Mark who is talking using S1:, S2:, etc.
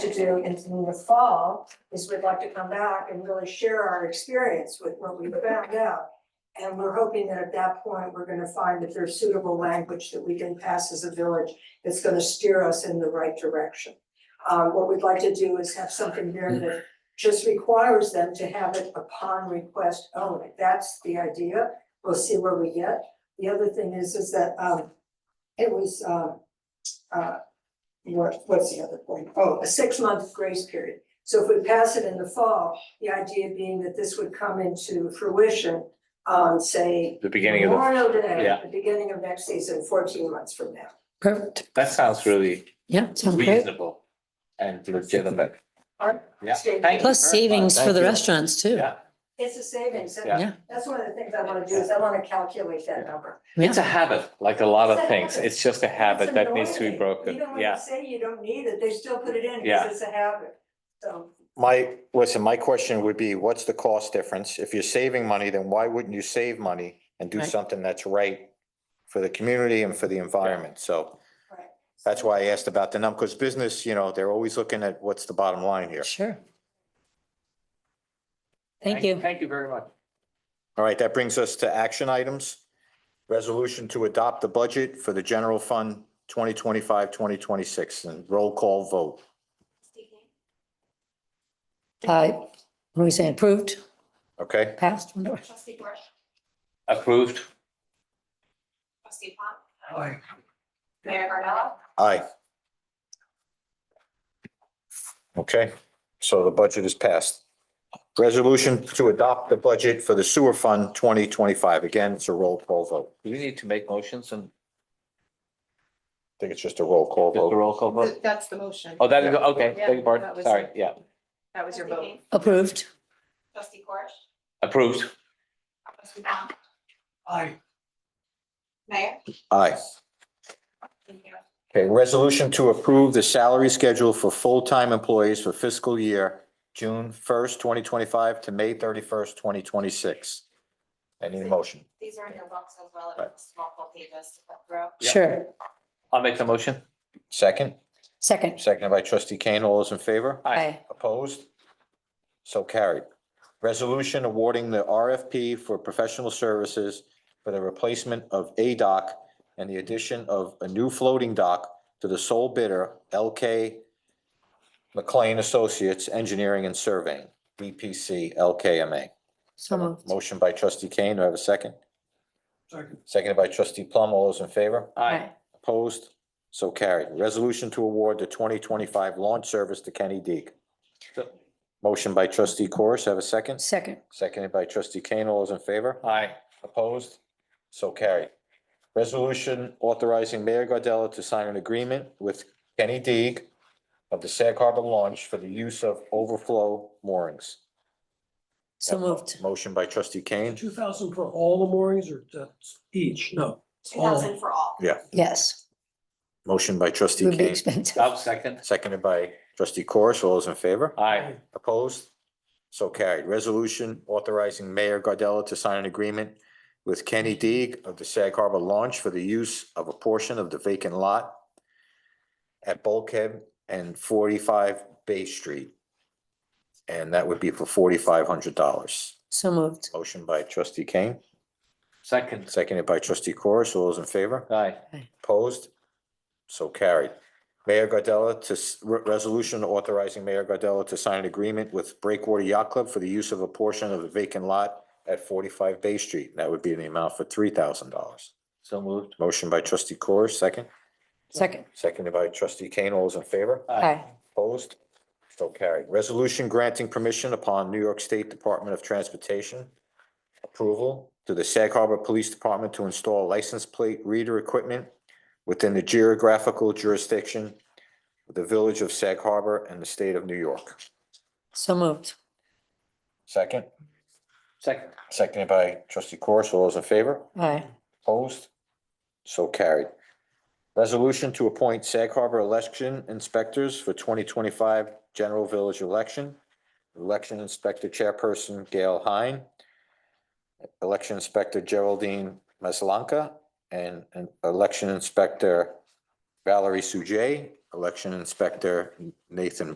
S1: to do in the fall is we'd like to come back and really share our experience with what we found out. And we're hoping that at that point, we're gonna find that there's suitable language that we can pass as a village that's gonna steer us in the right direction. Um, what we'd like to do is have something there that just requires them to have it upon request only. That's the idea. We'll see where we get. The other thing is, is that, um, it was, um, uh, what, what's the other point? Oh, a six-month grace period. So if we pass it in the fall, the idea being that this would come into fruition on, say,
S2: The beginning of the,
S1: Memorial Day,
S2: yeah.
S1: the beginning of next season, fourteen months from now.
S3: Perfect.
S2: that sounds really
S3: Yeah, sounds great.
S2: reasonable and legitimate.
S1: All right.
S2: Yeah.
S1: Stay tuned.
S2: Thank you
S3: Plus
S2: very
S3: savings
S2: much.
S3: for the
S2: Thank you.
S3: restaurants too.
S2: Yeah,
S1: It's a savings. That-
S3: Yeah.
S1: That's one of the things I wanna do is I wanna calculate that number.
S2: it's a habit, like a lot of things.
S1: habit.
S2: It's just a habit
S1: It's
S2: that needs to be
S1: annoying.
S2: broken.
S1: Even when you
S2: Yeah,
S1: say you don't need it, they still put it in
S2: Yeah.
S1: because it's a habit. So
S4: My, listen, my question would be, what's the cost difference? If you're saving money, then why wouldn't you save money and do
S3: Right.
S4: something that's right for the community and for the environment? So
S1: Right.
S4: that's why I asked about the number, because business, you know, they're always looking at what's the bottom line here.
S3: Sure. Thank you.
S2: Thank you very much.
S4: All right, that brings us to action items. Resolution to adopt the budget for the general fund 2025-2026 and roll call vote.
S3: Uh, what are we saying? Approved,
S4: Okay,
S3: passed?
S5: Trustee Board,
S2: Approved.
S5: trustee Pom. Mayor Gardella,
S4: aye. Okay, so the budget is passed. Resolution to adopt the budget for the sewer fund twenty twenty-five. Again, it's a roll call vote.
S2: Do we need to make motions and
S4: I think it's just a roll call
S2: just a
S4: vote.
S2: roll call vote?
S6: Th- That's the motion.
S2: Oh, that is, okay,
S6: Yeah,
S2: beg your
S6: that
S2: pardon,
S6: was
S2: sorry,
S6: it.
S2: yeah.
S6: That was your
S5: Trustee
S6: vote.
S5: King,
S3: Approved,
S5: Trustee Corish,
S2: Approved.
S5: trustee Pom. Aye. Mayor.
S4: Aye.
S5: Thank you.
S4: Okay, resolution to approve the salary schedule for full-time employees for fiscal year June first, twenty twenty-five to May thirty-first, twenty twenty-six. Any motion?
S5: These are in your books as well, it's multiple pages to put through.
S2: Yeah.
S3: sure.
S2: I'll make the motion.
S4: Second,
S3: Second.
S4: seconded by trustee Kane. All those in favor?
S3: Aye.
S4: Opposed? So carried. Resolution awarding the RFP for professional services for the replacement of a dock and the addition of a new floating dock to the sole bidder, LK McLean Associates Engineering and Surveying, E BPC LKMA.
S3: So moved.
S4: Motion by trustee Kane, do I have a second? Second. Seconded by trustee Plum, all those in favor?
S2: Aye.
S4: Opposed? So carried. Resolution to award the twenty twenty-five launch service to Kenny Deeg.
S2: So-
S4: Motion by trustee Corish, have a second?
S3: Second,
S4: Seconded by trustee Kane. All those in favor?
S2: Aye.
S4: Opposed? So carried. Resolution authorizing Mayor Gardella to sign an agreement with Kenny Deeg of the Sag Harbor launch for the use of overflow moorings.
S3: so moved.
S4: Motion by trustee Kane.
S7: Two thousand for all the moorings or that's each? No.
S5: Two thousand for all.
S3: Yes,
S4: Motion by trustee
S3: would be
S4: Kane,
S3: expensive.
S2: I'll second.
S4: seconded by trustee Corish. All those in favor?
S2: Aye.
S4: Opposed? So carried. Resolution authorizing Mayor Gardella to sign an agreement with Kenny Deeg of the Sag Harbor Launch for the use of a portion of the vacant lot at Bulkhead and forty-five Bay Street. And that would be for forty-five hundred dollars.
S3: So moved.
S4: Motion by trustee Kane,
S2: Second.
S4: seconded by trustee Corus. All those in favor?
S2: Aye.
S4: Opposed? So carried. Mayor Gardella to, s- re- resolution authorizing Mayor Gardella to sign an agreement with Breakwater Yacht Club for the use of a portion of the vacant lot at forty-five Bay Street. That would be the amount for three thousand dollars.
S2: So moved.
S4: Motion by trustee Corr, second,
S3: Second,
S4: seconded by trustee Kane. All those in favor?
S3: aye.
S4: Opposed? So carried. Resolution granting permission upon New York State Department of Transportation approval to the Sag Harbor Police Department to install license plate reader equipment within the geographical jurisdiction of the Village of Sag Harbor and the State of New York.
S3: So moved.
S4: Second,
S2: Second.
S4: seconded by trustee Corus. All those in favor?
S3: Aye.
S4: Opposed? So carried. Resolution to appoint Sag Harbor election inspectors for twenty twenty-five general village election. Election Inspector Chairperson Gail Hine. Election Inspector Geraldine Maslanka and and Election Inspector Valerie Sujay, Election Inspector Nathan